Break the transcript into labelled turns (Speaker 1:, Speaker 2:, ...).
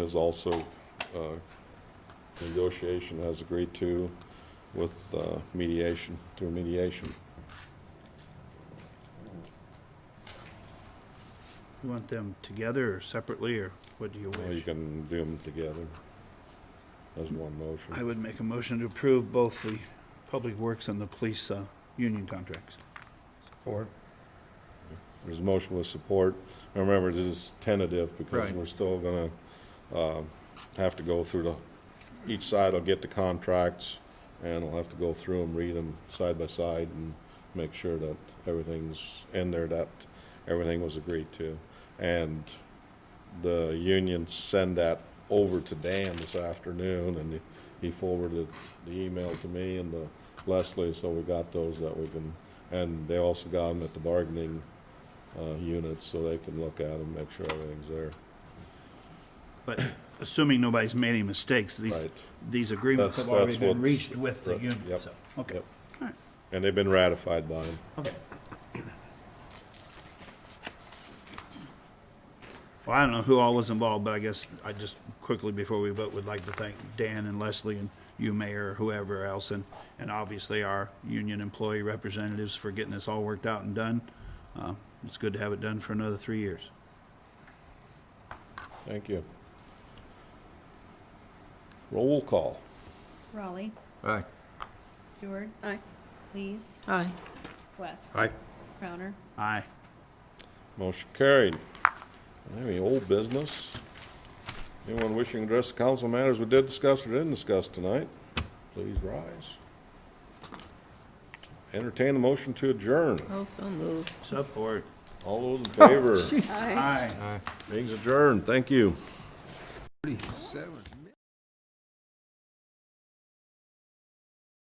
Speaker 1: is also uh, negotiation has agreed to with uh, mediation, through mediation.
Speaker 2: You want them together or separately, or what do you
Speaker 1: Or You
Speaker 2: wish?
Speaker 1: can do them together as one motion.
Speaker 2: I would make a motion to approve both the Public Works and the Police uh, Union contracts.
Speaker 3: Support.
Speaker 1: There's a motion with support. And Remember, this is tentative because
Speaker 2: Right.
Speaker 1: we're still gonna, uh, have to go through the, each side will get the contracts and we'll have to go through them, read them side by side and make sure that everything's in there, that everything was agreed to. And the union send that over to Dan this afternoon and he- he forwarded the email to me and the Leslie, so we got those that we can, and they also got them at the bargaining uh, units so they can look at them, make sure everything's there.
Speaker 2: But assuming nobody's made any mistakes, these,
Speaker 1: Right.
Speaker 2: these agreements
Speaker 1: That's-
Speaker 2: have already
Speaker 1: that's
Speaker 2: been
Speaker 1: what's-
Speaker 2: reached with the
Speaker 1: Right,
Speaker 2: union,
Speaker 1: yep,
Speaker 2: so, okay.
Speaker 1: yep.
Speaker 2: All right,
Speaker 1: And they've been ratified by them.
Speaker 2: okay. Well, I don't know who all was involved, but I guess I just quickly before we vote would like to thank Dan and Leslie and you, Mayor, whoever else, and, and obviously our union employee representatives for getting this all worked out and done. Uh, It's good to have it done for another three years.
Speaker 1: Thank you. Roll call.
Speaker 4: Raleigh.
Speaker 3: Aye.
Speaker 4: Stewart. Aye. Lees.
Speaker 5: Aye.
Speaker 4: West.
Speaker 3: Aye.
Speaker 4: Crowner.
Speaker 2: Aye.
Speaker 1: Motion carried. Any old business? Anyone wishing to address the council matters we did discuss or didn't discuss tonight, please rise. Entertain a motion to adjourn.
Speaker 5: Also moved.
Speaker 2: Support.
Speaker 1: All those in favor,
Speaker 2: Aye.
Speaker 1: meeting's adjourned. Thank you.
Speaker 3: Thirty-seven.